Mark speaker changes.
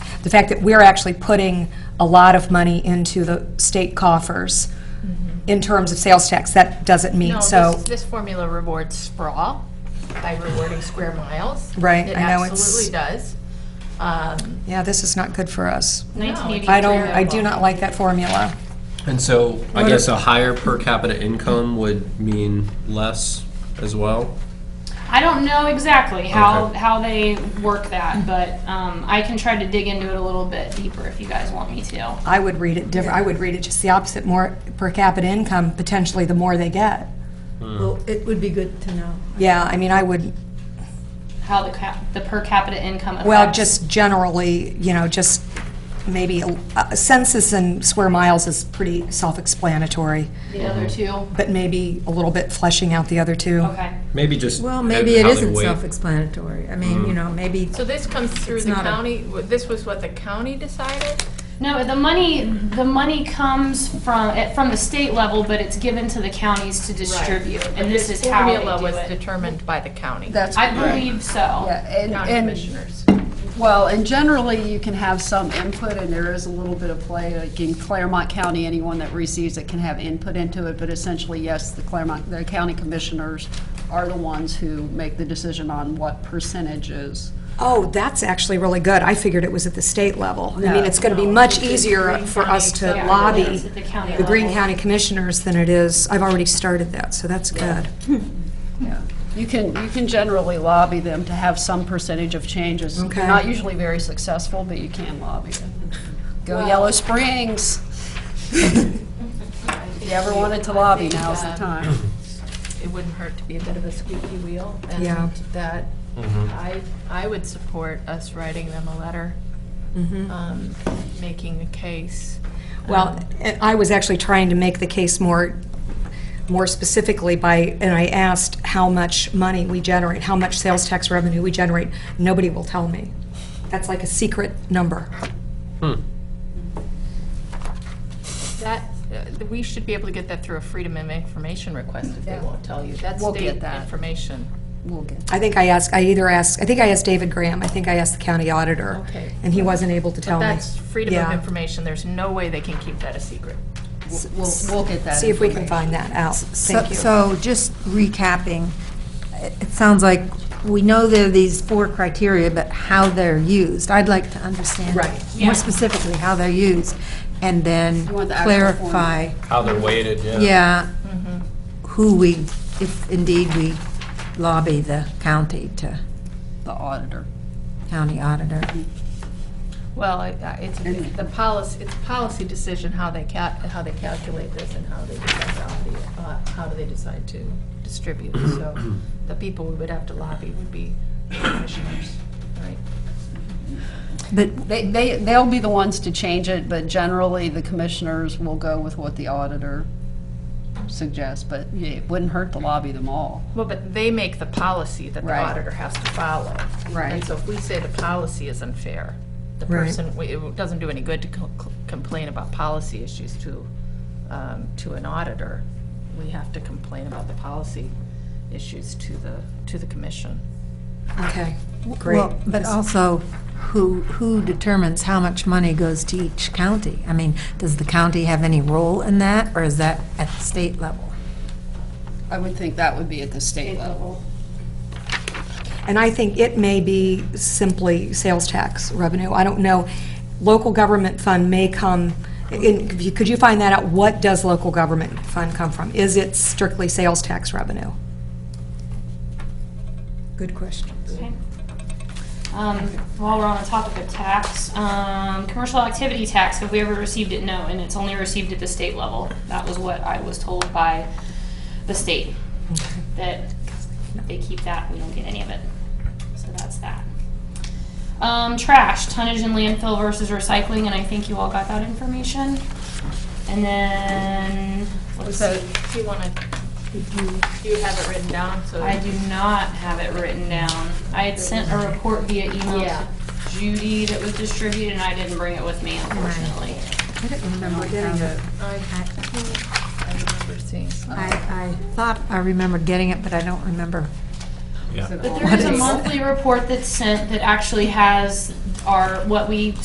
Speaker 1: the fact that we're actually putting a lot of money into the state coffers in terms of sales tax, that doesn't
Speaker 2: Mm-hmm. No,
Speaker 1: mean, so.
Speaker 2: this, this formula rewards sprawl by rewarding square miles.
Speaker 1: Right,
Speaker 2: It
Speaker 1: I know it's-
Speaker 2: absolutely does. Um,
Speaker 1: Yeah, this is not good for us.
Speaker 2: no, it's
Speaker 3: 1983
Speaker 1: I don't, I do not like that formula.
Speaker 4: And so, I
Speaker 1: What
Speaker 4: guess
Speaker 1: if-
Speaker 4: a higher per capita income would mean less as well?
Speaker 3: I don't know exactly how,
Speaker 4: Okay.
Speaker 3: how they work that, but um, I can try to dig into it a little bit deeper if you guys want me to.
Speaker 1: I would read it different, I would read it just the opposite, more per capita income, potentially the more they get.
Speaker 5: Well, it would be good to know.
Speaker 1: Yeah, I mean, I would,
Speaker 3: How the cap, the per capita income affects.
Speaker 1: well, just generally, you know, just maybe, uh, census and square miles is pretty self-explanatory,
Speaker 3: The other two.
Speaker 1: but maybe a little bit fleshing out the other two.
Speaker 3: Okay.
Speaker 4: Maybe just.
Speaker 5: Well,
Speaker 4: at
Speaker 5: maybe it
Speaker 4: how they
Speaker 5: isn't
Speaker 4: weight.
Speaker 5: self-explanatory. I mean, you know, maybe,
Speaker 2: So this comes through
Speaker 5: It's
Speaker 2: the
Speaker 5: not a-
Speaker 2: county, w- this was what the county decided?
Speaker 3: No, the money, the money comes from, eh, from the state level, but it's given to the counties to distribute.
Speaker 2: But
Speaker 3: And this is how they
Speaker 2: Formula was
Speaker 3: do it.
Speaker 2: determined by the county,
Speaker 6: That's
Speaker 3: I
Speaker 6: correct.
Speaker 3: believe so.
Speaker 6: Yeah, and-
Speaker 2: county
Speaker 6: and-
Speaker 2: commissioners.
Speaker 6: Well, and generally, you can have some input, and there is a little bit of play. Like in Claremont County, anyone that receives it can have input into it, but essentially, yes, the Claremont, the county commissioners are the ones who make the decision on what percentages.
Speaker 1: Oh, that's actually really good. I figured it was at the state level. I mean,
Speaker 6: No.
Speaker 1: it's going to be much easier for us to
Speaker 3: Yeah,
Speaker 1: lobby
Speaker 3: it's at the county
Speaker 1: the Green
Speaker 3: level.
Speaker 1: County Commissioners than it is, I've already started that, so that's good.
Speaker 6: Yeah. You can, you can generally lobby them to have some percentage of changes. They're
Speaker 1: Okay.
Speaker 6: Not usually very successful, but you can lobby them. Go Yellow Springs. If you ever wanted to lobby, now's the time.
Speaker 2: uh, It wouldn't hurt to be a bit of a squeaky wheel,
Speaker 1: Yeah.
Speaker 2: and that, I, I would support us writing them a letter,
Speaker 6: Mm-hmm.
Speaker 2: um, making the case. Um,
Speaker 1: Well, and I was actually trying to make the case more, more specifically by, and I asked how much money we generate, how much sales tax revenue we generate. Nobody will tell me. That's like a secret number.
Speaker 4: Hmm.
Speaker 2: That, uh, we should be able to get that through a Freedom of Information request if they won't tell you. That's
Speaker 6: We'll get
Speaker 2: state
Speaker 6: that.
Speaker 2: information.
Speaker 6: We'll get
Speaker 1: I think I asked, I either asked, I think I asked David Graham, I think I asked the county auditor.
Speaker 2: Okay.
Speaker 1: And he wasn't able to tell me.
Speaker 2: That's freedom of
Speaker 1: Yeah.
Speaker 2: information. There's no way they can keep that a secret.
Speaker 6: We'll, we'll get that.
Speaker 1: See if we can
Speaker 6: information.
Speaker 1: find that out.
Speaker 5: so
Speaker 1: Thank you.
Speaker 5: so just recapping, it it sounds like we know there are these four criteria, but how they're used. I'd like to understand
Speaker 1: Right.
Speaker 3: Yeah.
Speaker 5: more specifically how they're used, and then
Speaker 6: You want the actual form. Mm-hmm.
Speaker 5: clarify,
Speaker 4: How they're weighted, yeah.
Speaker 5: yeah, who we, if indeed we lobby the county to,
Speaker 6: The auditor.
Speaker 5: county auditor.
Speaker 2: Well, I- I- it's,
Speaker 6: Mm-hmm.
Speaker 2: it's the policy, it's a policy decision how they cal, how they calculate this and how they decide to, lobby it, uh, how do they decide to distribute. So the people we would have to lobby would be commissioners, right?
Speaker 5: But
Speaker 6: They, they, they'll be the ones to change it, but generally, the commissioners will go with what the auditor suggests, but yeah, it wouldn't hurt to lobby them all.
Speaker 2: Well, but they make the policy that the
Speaker 6: Right.
Speaker 2: auditor has to follow.
Speaker 6: Right.
Speaker 2: And so if we say the policy is unfair, the
Speaker 1: Right.
Speaker 2: person, we- it doesn't do any good to co- co- complain about policy issues to, um, to an auditor. We have to complain about the policy issues to the, to the commission.
Speaker 1: Okay, great.
Speaker 5: Well, But also, who, who determines how much money goes to each county? I mean, does the county have any role in that, or is that at the state level?
Speaker 6: I would think that would be at the state level.
Speaker 1: And I think it may be simply sales tax revenue. I don't know. Local government fund may come, in- could you- could you find that out? What does local government fund come from? Is it strictly sales tax revenue? Good question.
Speaker 3: Okay. Um, While we're on the topic of tax, um, commercial activity tax, have we ever received it? No, and it's only received at the state level. That was what I was told by the state, that they keep that, we don't get any of it. So that's that. Um, Trash, tonnage in landfill versus recycling, and I think you all got that information. And then, let's
Speaker 2: So
Speaker 3: see.
Speaker 2: do you want to, do you have it written down? So
Speaker 3: I do not have it written down. I had sent a report via email
Speaker 2: Yeah.
Speaker 3: to Judy that was distributed, and I didn't bring it with me, unfortunately.
Speaker 5: I didn't remember getting it.
Speaker 2: I I remember seeing some.
Speaker 5: I, I thought I remembered getting it, but I don't remember.
Speaker 4: Yeah.
Speaker 3: But there is a
Speaker 5: What is-
Speaker 3: monthly report that's sent that actually has our, what we